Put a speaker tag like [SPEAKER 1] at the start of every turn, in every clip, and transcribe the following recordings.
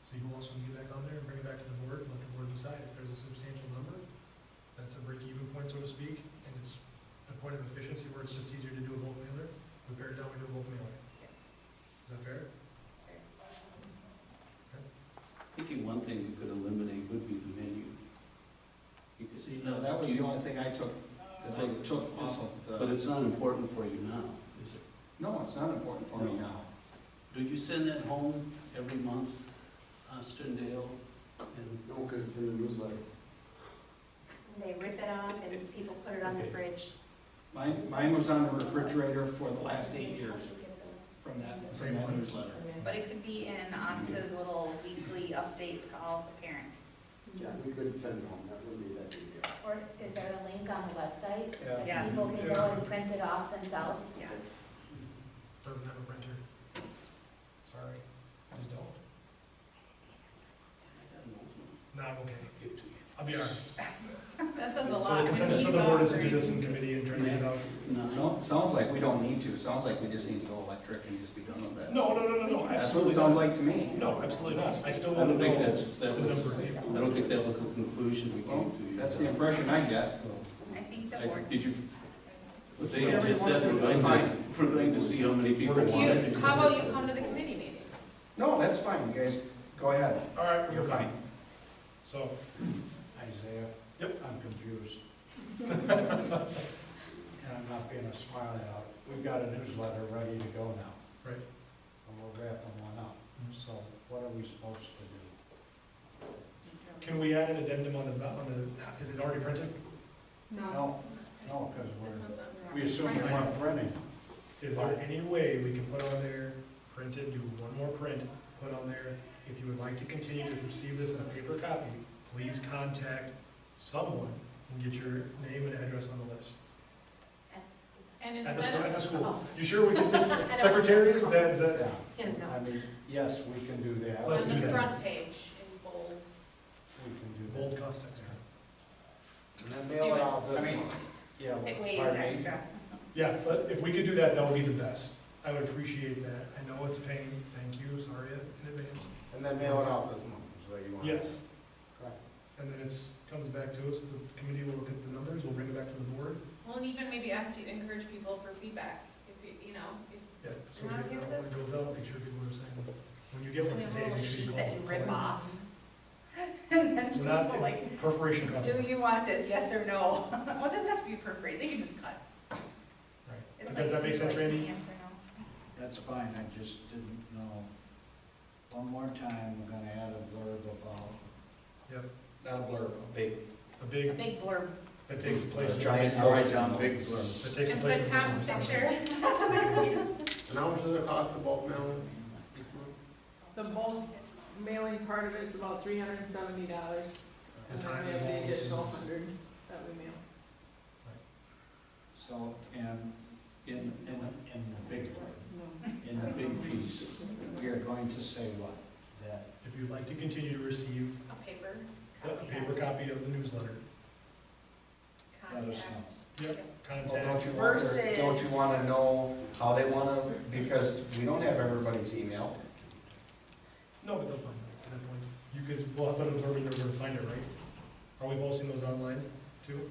[SPEAKER 1] see who else we can get back on there and bring it back to the board and let the board decide if there's a substantial number. That's a break-even point, so to speak, and it's a point of efficiency where it's just easier to do a bulk mailer. We pare it down, we do a bulk mailer. Is that fair?
[SPEAKER 2] Thinking one thing we could eliminate would be the menu. You could-
[SPEAKER 3] See, no, that was the only thing I took, that I took off of
[SPEAKER 2] But
[SPEAKER 3] the,
[SPEAKER 2] it's not important for you now, is it?
[SPEAKER 3] no, it's not important for me
[SPEAKER 2] No.
[SPEAKER 3] now.
[SPEAKER 2] Do you send that home every month, Austin Dale? And
[SPEAKER 4] No, because it's in the newsletter.
[SPEAKER 5] They rip it off and people put it on the
[SPEAKER 2] Okay.
[SPEAKER 5] fridge.
[SPEAKER 3] Mine, mine was on the refrigerator for the last eight years from that,
[SPEAKER 1] Same
[SPEAKER 3] from that
[SPEAKER 1] one.
[SPEAKER 3] newsletter.
[SPEAKER 6] But it could be in Asta's little weekly update to all the parents.
[SPEAKER 4] Yeah, we could send it home, that wouldn't be that big a deal.
[SPEAKER 7] Or is there a link on the website?
[SPEAKER 6] Yes.
[SPEAKER 7] People can go and print it off themselves?
[SPEAKER 6] Yes.
[SPEAKER 1] Doesn't have a printer. Sorry, I just don't.
[SPEAKER 2] I got an old one
[SPEAKER 1] No, I'm okay.
[SPEAKER 2] to give to you.
[SPEAKER 1] I'll be all right.
[SPEAKER 6] That says a
[SPEAKER 1] So the
[SPEAKER 6] lot.
[SPEAKER 1] consensus of the board is to do this in committee and try to get it out.
[SPEAKER 2] No,
[SPEAKER 3] So- Sounds like we don't need to, sounds like we just need to go electric and just be done with that.
[SPEAKER 1] No, no, no, no, no,
[SPEAKER 3] That's what it
[SPEAKER 1] absolutely
[SPEAKER 3] sounds
[SPEAKER 1] not.
[SPEAKER 3] like to me.
[SPEAKER 1] No, absolutely not. I still
[SPEAKER 2] I
[SPEAKER 1] want to
[SPEAKER 2] don't think
[SPEAKER 1] know
[SPEAKER 2] that's,
[SPEAKER 1] the
[SPEAKER 2] that was,
[SPEAKER 1] number.
[SPEAKER 2] I don't think that was the conclusion we
[SPEAKER 3] Well,
[SPEAKER 2] came to. you.
[SPEAKER 3] that's the impression I get.
[SPEAKER 6] I think the
[SPEAKER 2] I-
[SPEAKER 6] board.
[SPEAKER 2] Did you,
[SPEAKER 4] Let's
[SPEAKER 2] they
[SPEAKER 4] put
[SPEAKER 2] had
[SPEAKER 4] every
[SPEAKER 2] just said,
[SPEAKER 4] one
[SPEAKER 2] we're
[SPEAKER 4] of them.
[SPEAKER 2] going
[SPEAKER 4] That's
[SPEAKER 2] to, we're going to see how many people
[SPEAKER 1] We're
[SPEAKER 2] want
[SPEAKER 1] gonna
[SPEAKER 2] it.
[SPEAKER 1] see.
[SPEAKER 8] How about you come to the committee meeting?
[SPEAKER 3] No, that's fine, you guys, go ahead.
[SPEAKER 1] All right,
[SPEAKER 3] You're
[SPEAKER 1] we're fine.
[SPEAKER 3] fine.
[SPEAKER 1] So,
[SPEAKER 9] Isaiah?
[SPEAKER 1] Yep.
[SPEAKER 9] I'm confused. And I'm not being a smiley out. We've got a newsletter ready to go now,
[SPEAKER 1] right,
[SPEAKER 9] and we're wrapping one up. So what are we supposed to do?
[SPEAKER 1] can we add an addendum on the, on the, is it already printed?
[SPEAKER 9] No, no, because we're, we assume we weren't printing.
[SPEAKER 1] Is there any way we can put on there, print it, do one more print, put on there, if you would like to continue to receive this in a paper copy, please contact someone and get your name and address on the list.
[SPEAKER 8] And
[SPEAKER 1] At the school,
[SPEAKER 8] instead
[SPEAKER 1] at the
[SPEAKER 8] of,
[SPEAKER 1] school. You sure we can, secretary, is that, is that?
[SPEAKER 9] Yeah, I mean, yes, we can do that.
[SPEAKER 1] Let's
[SPEAKER 8] on
[SPEAKER 1] do
[SPEAKER 8] the
[SPEAKER 1] that.
[SPEAKER 8] front page in bold,
[SPEAKER 9] We can do
[SPEAKER 1] Bold
[SPEAKER 9] that.
[SPEAKER 1] cost extra.
[SPEAKER 9] And then mail it out this month. Yeah.
[SPEAKER 8] it weighs
[SPEAKER 9] pardon me?
[SPEAKER 8] extra.
[SPEAKER 1] Yeah, but if we could do that, that would be the best. I would appreciate that. I know it's a pain, thank you, sorry in advance.
[SPEAKER 4] And then mail it out this month, is what you want.
[SPEAKER 1] Yes.
[SPEAKER 4] Correct.
[SPEAKER 1] And then it's, comes back to us, the committee will look at the numbers, we'll bring it back to the board.
[SPEAKER 8] Well, and even maybe ask, pe- encourage people for feedback, if, you- you know, if,
[SPEAKER 1] Yeah, so
[SPEAKER 8] Can I
[SPEAKER 1] we
[SPEAKER 8] get
[SPEAKER 1] get that when
[SPEAKER 8] this?
[SPEAKER 1] it goes out, make sure people are saying, when you get
[SPEAKER 5] They
[SPEAKER 1] one, say,
[SPEAKER 5] have a
[SPEAKER 1] hey,
[SPEAKER 5] little
[SPEAKER 1] make sure you
[SPEAKER 5] sheet
[SPEAKER 1] call.
[SPEAKER 5] that you rip off.
[SPEAKER 6] And then
[SPEAKER 1] So
[SPEAKER 6] people
[SPEAKER 1] not
[SPEAKER 6] like,
[SPEAKER 1] perforation cuts.
[SPEAKER 6] do you want this, yes or no? Well, it doesn't have to be perforated, they can just cut. It's
[SPEAKER 1] Right.
[SPEAKER 6] like,
[SPEAKER 1] Does that
[SPEAKER 6] do
[SPEAKER 1] make
[SPEAKER 6] you
[SPEAKER 1] sense,
[SPEAKER 6] like
[SPEAKER 1] Randy?
[SPEAKER 6] Yes or no?
[SPEAKER 9] That's fine, I just didn't know. One more time, we're gonna add a blurb about,
[SPEAKER 1] Yep,
[SPEAKER 3] Not a blurb, a big.
[SPEAKER 1] a
[SPEAKER 5] A
[SPEAKER 1] big,
[SPEAKER 5] big blurb.
[SPEAKER 1] that takes the place. of-
[SPEAKER 3] Giant
[SPEAKER 1] That
[SPEAKER 3] post-it note.
[SPEAKER 4] big blurb.
[SPEAKER 1] takes the
[SPEAKER 8] and
[SPEAKER 1] place.
[SPEAKER 8] put
[SPEAKER 1] of-
[SPEAKER 8] Tom's picture.
[SPEAKER 4] And how much does it cost to bulk mail each month?
[SPEAKER 10] The bulk mailing part of it's about three hundred and seventy dollars,
[SPEAKER 1] The
[SPEAKER 10] and then
[SPEAKER 1] time
[SPEAKER 10] we have the
[SPEAKER 1] involved
[SPEAKER 10] additional
[SPEAKER 1] is-
[SPEAKER 10] hundred that we mail.
[SPEAKER 9] so, and in, in, in the big blurb, in the big piece, we are going to say what? That
[SPEAKER 1] If you'd like to continue to receive
[SPEAKER 8] A paper.
[SPEAKER 1] a
[SPEAKER 8] copy.
[SPEAKER 1] paper copy of the newsletter,
[SPEAKER 9] Let us
[SPEAKER 8] Contact.
[SPEAKER 9] know.
[SPEAKER 1] yep,
[SPEAKER 3] Well, don't
[SPEAKER 1] contact.
[SPEAKER 3] you want, their- don't you wanna know how they wanna, because we don't have everybody's email.
[SPEAKER 1] No, but they'll find it at that point. You guys will have put a blurb in there where to find it, right? Are we posting those online too?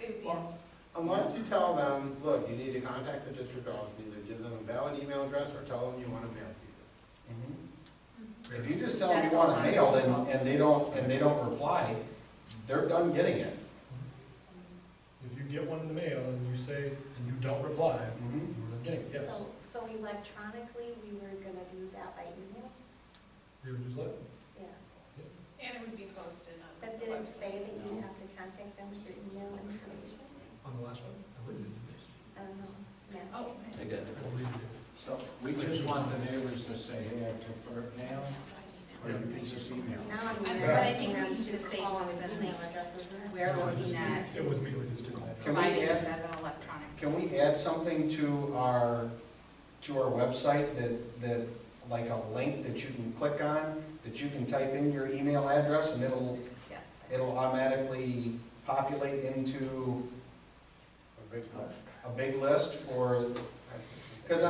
[SPEAKER 8] It would be-
[SPEAKER 4] Well, Unless you tell them, look, you need to contact the district office, and either give them a valid email address or tell them you want to mail it
[SPEAKER 6] Hmm.
[SPEAKER 3] If you just tell them you want it mailed and, and they don't, and they don't reply, they're done getting it.
[SPEAKER 1] If you get one in the mail and you say, and you don't reply,
[SPEAKER 3] Mhm.
[SPEAKER 1] you're not getting it, yes.
[SPEAKER 5] So, so electronically, we were gonna do that by email?
[SPEAKER 1] Do a newsletter?
[SPEAKER 5] Yeah.
[SPEAKER 8] And it would be posted on.
[SPEAKER 5] But
[SPEAKER 8] the
[SPEAKER 5] didn't
[SPEAKER 8] website.
[SPEAKER 5] say that you have to contact them for email information?
[SPEAKER 1] On the last one? I believe
[SPEAKER 5] I don't know. Yes.
[SPEAKER 8] Oh,
[SPEAKER 2] I got it.
[SPEAKER 1] it did.
[SPEAKER 9] So we just want the neighbors to say, hey, I prefer mail, or you can just email.
[SPEAKER 5] Now I'm.
[SPEAKER 6] I
[SPEAKER 8] mean,
[SPEAKER 5] gonna
[SPEAKER 8] but
[SPEAKER 6] I think
[SPEAKER 5] ask
[SPEAKER 6] we
[SPEAKER 5] them
[SPEAKER 6] need to say
[SPEAKER 5] call with
[SPEAKER 6] something
[SPEAKER 5] email
[SPEAKER 6] like,
[SPEAKER 5] addresses, isn't it?
[SPEAKER 6] We're looking at
[SPEAKER 1] It was me, it was just a call.
[SPEAKER 3] Can we
[SPEAKER 6] providing this
[SPEAKER 3] add-
[SPEAKER 6] as an electronic.
[SPEAKER 3] Can we add something to our, to our website that, that, like a link that you can click on, that you can type in your email address and it'll,
[SPEAKER 6] Yes.
[SPEAKER 3] it'll automatically populate into
[SPEAKER 4] to you. A big plus.
[SPEAKER 3] a big list for